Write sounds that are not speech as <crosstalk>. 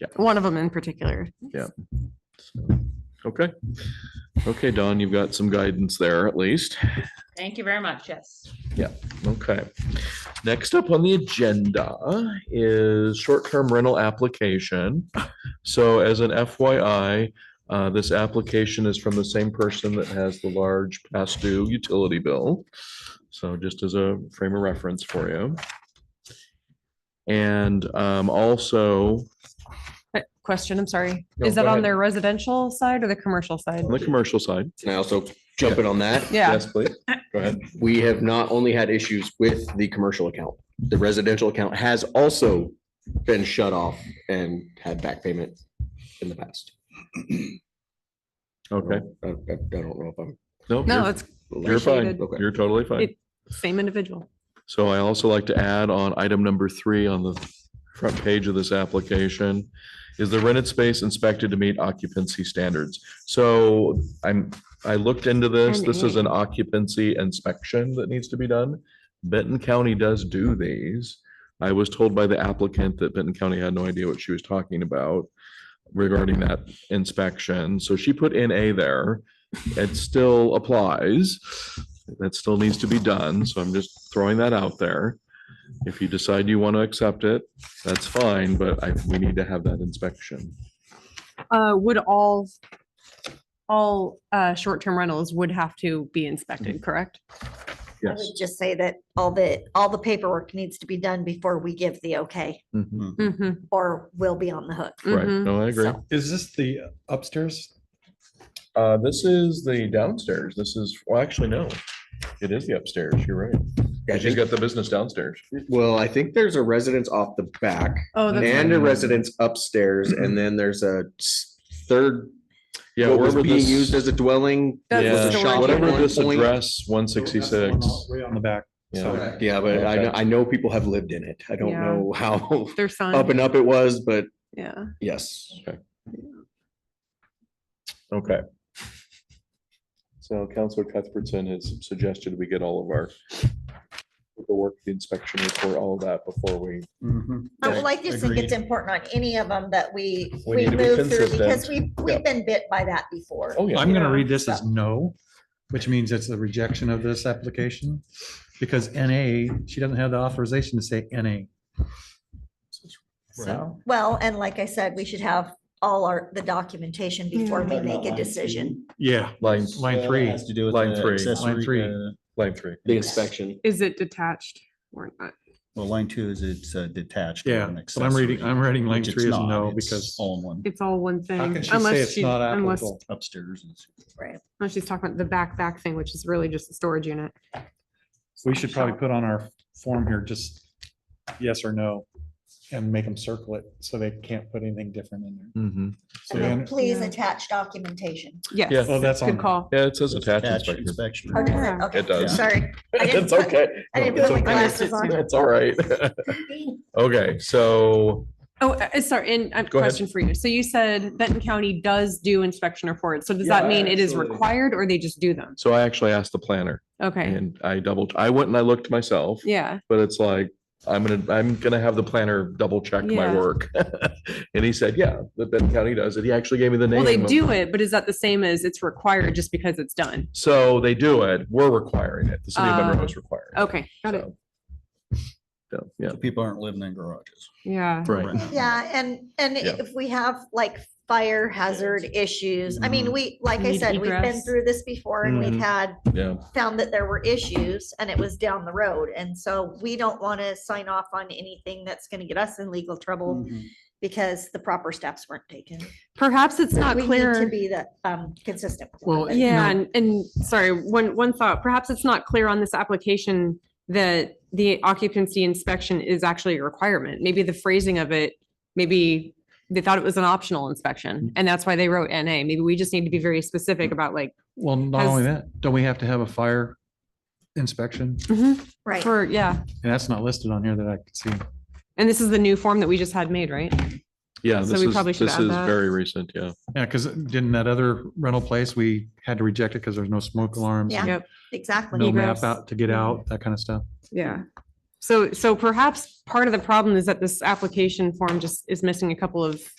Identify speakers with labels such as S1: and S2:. S1: Yeah.
S2: One of them in particular.
S1: Okay. Okay, Don, you've got some guidance there at least.
S3: Thank you very much, yes.
S1: Okay. Next up on the agenda is short-term rental application. So as an FYI, uh, this application is from the same person that has the large past due utility bill. So just as a frame of reference for you. And um, also
S2: Uh, Question, I'm sorry.
S1: No,
S2: Is that
S1: go
S2: on
S1: ahead.
S2: their residential side or the commercial side?
S1: on the commercial side.
S4: Can I also jump in on that?
S2: Yeah,
S1: Yes, please. Go ahead.
S4: We have not only had issues with the commercial account, the residential account has also been shut off and had back payment in the past.
S1: Okay.
S4: I I- I don't know if I'm.
S1: Nope,
S2: no,
S1: you're-
S2: it's
S1: You're fine.
S2: appreciated.
S4: Okay.
S1: You're totally fine.
S2: It- same individual.
S1: So I also like to add on item number three on the front page of this application. Is the rented space inspected to meet occupancy standards? So I'm, I looked into this. This is an occupancy inspection that needs to be done. Benton County does do these. I was told by the applicant that Benton County had no idea what she was talking about regarding that inspection. So she put in A there. It still applies. That still needs to be done. So I'm just throwing that out there. If you decide you want to accept it, that's fine, but I, we need to have that inspection.
S2: Uh, would all, all, uh, short-term rentals would have to be inspected, correct?
S5: I would just say that all the, all the paperwork needs to be done before we give the okay,
S1: Mhm.
S2: Mm-hmm.
S5: or we'll be on the hook.
S1: Right.
S2: Mhm.
S1: No, I agree.
S5: So-
S6: Is this the upstairs?
S1: Uh, this is the downstairs. This is, well, actually, no. It is the upstairs. You're right.
S4: I
S1: She's
S4: think-
S1: got the business downstairs.
S4: Well, I think there's a residence off the back
S2: Oh, that's
S4: and a residence upstairs, and then there's a s- third.
S1: Yeah.
S4: what was
S1: wherever
S4: being
S1: this-
S4: used as a dwelling.
S2: That's
S4: was a
S2: the
S1: Yeah,
S2: storage
S4: shop at
S1: whatever
S4: one
S1: this
S4: point.
S1: address, one sixty-six.
S6: Way on the back.
S1: Yeah.
S6: So
S4: Yeah, but I know,
S1: Okay.
S4: I know people have lived in it. I don't
S2: Yeah.
S4: know how
S2: their
S4: up
S2: son.
S4: and up it was, but
S2: Yeah.
S4: yes.
S1: Okay. So Counselor Cuthbertson has suggested we get all of our the work, the inspection report, all of that before we.
S5: Uh, Well, I just think
S6: Agreed.
S5: it's important on any of them that we,
S1: We
S5: we
S1: need to be
S5: move through because we,
S1: consistent. Oh,
S5: we've been bit by that before.
S1: yeah.
S6: I'm
S5: Yeah.
S6: gonna read this as no, which means it's a rejection of this application. Because NA, she doesn't have the authorization to say NA.
S5: So, well, and like I said, we should have all our, the
S2: Mm.
S5: documentation before we make a decision.
S6: Yeah.
S1: Line,
S6: Line three.
S7: Has to do with
S1: Line
S7: the
S1: three.
S7: accessory,
S6: Line three.
S7: uh,
S1: line three.
S4: The inspection.
S2: Is it detached or not?
S7: Well, line two is it's uh, detached. or
S6: Yeah,
S7: an
S6: but I'm reading,
S7: accessory,
S6: I'm reading line
S7: which it's
S6: three as
S7: not.
S6: no
S7: It's
S6: because
S7: All in one
S2: It's all one thing.
S6: how can she say
S2: Unless
S6: it's
S2: she,
S6: not
S2: unless,
S6: applicable?
S7: upstairs. is-
S5: Right.
S2: unless she's talking about the back, back thing, which is really just a storage unit.
S6: We should probably put on our form here, just yes or no, and make them circle it so they can't put anything different in there.
S1: Mm-hmm.
S6: So
S5: And then
S6: then,
S5: please
S2: Yeah.
S5: attach documentation.
S2: Yes.
S1: Yeah.
S6: oh, that's on.
S2: Good call.
S1: Yeah, it says
S7: It's
S1: attached
S7: attached
S1: inspection.
S7: inspection.
S5: Or does
S2: Yeah.
S5: Okay,
S1: It does. <laughs>
S5: Sorry. I didn't
S1: It's
S5: put- <laughs>
S1: okay.
S5: I didn't
S1: No, it's
S5: put my
S1: okay.
S5: glasses on.
S1: It's all right. <laughs> Okay, so
S2: Oh, uh, sorry, and a
S1: Go ahead.
S2: question for you. So you said Benton County does do inspection reports. So does that
S1: Yeah,
S2: mean it is
S1: absolutely.
S2: required or they just do them?
S1: so I actually asked the planner
S2: Okay,
S1: and I double, I went and I looked myself.
S2: yeah.
S1: but it's like, I'm gonna, I'm gonna have the planner double check my
S2: Yeah.
S1: work. <laughs> And he said, yeah, the Benton County does it. He actually gave me the name.
S2: Well, they
S1: of-
S2: do it, but is that the same as it's required just because it's done?
S1: So they do it. We're requiring it. The city of Monroe
S2: Uh,
S1: is requiring. it.
S2: Okay, got it.
S1: So- So, yeah.
S7: So People aren't living in garages.
S2: Yeah.
S1: Right.
S5: Yeah, and, and
S1: Yeah.
S5: if we have like fire hazard issues, I
S1: Mm-hmm.
S5: mean,
S7: Mhm.
S5: we, like I
S2: Need
S5: said, we've been
S2: egress.
S5: through this before and we've
S1: Mhm.
S5: had,
S1: Yeah.
S5: found that there were issues and it was down the road. And so we don't want to sign off on anything that's going to get us in legal
S1: Mm.
S5: trouble
S7: Mhm.
S5: because the proper steps weren't taken.
S2: Perhaps it's not
S5: We need to
S2: clear.
S5: be that, um, consistent. with
S6: Well,
S5: everybody.
S2: Yeah, and, and sorry, one, one thought, perhaps it's not clear on this application that the occupancy inspection is actually a requirement. Maybe the phrasing of it, maybe they thought it was an optional inspection and that's why they wrote NA. Maybe we just need to be very specific about like,
S6: Well, not only that, don't we have to have a fire inspection?
S5: Right.
S2: for, yeah.
S6: And that's not listed on here that I could see.
S2: And this is the new form that we just had made, right?
S1: Yeah,
S2: So
S1: this
S2: we
S1: is,
S2: probably
S1: this
S2: should add
S1: is
S2: that.
S1: very recent. Yeah.
S6: Yeah, because didn't that other rental place, we had to reject it because there's no smoke alarms,
S5: Yeah.
S6: and
S2: Yep.
S5: Exactly.
S6: no
S2: Egress.
S6: map out to get out, that kind of stuff.
S2: Yeah. So, so perhaps part of the problem is that this application form just is missing a couple of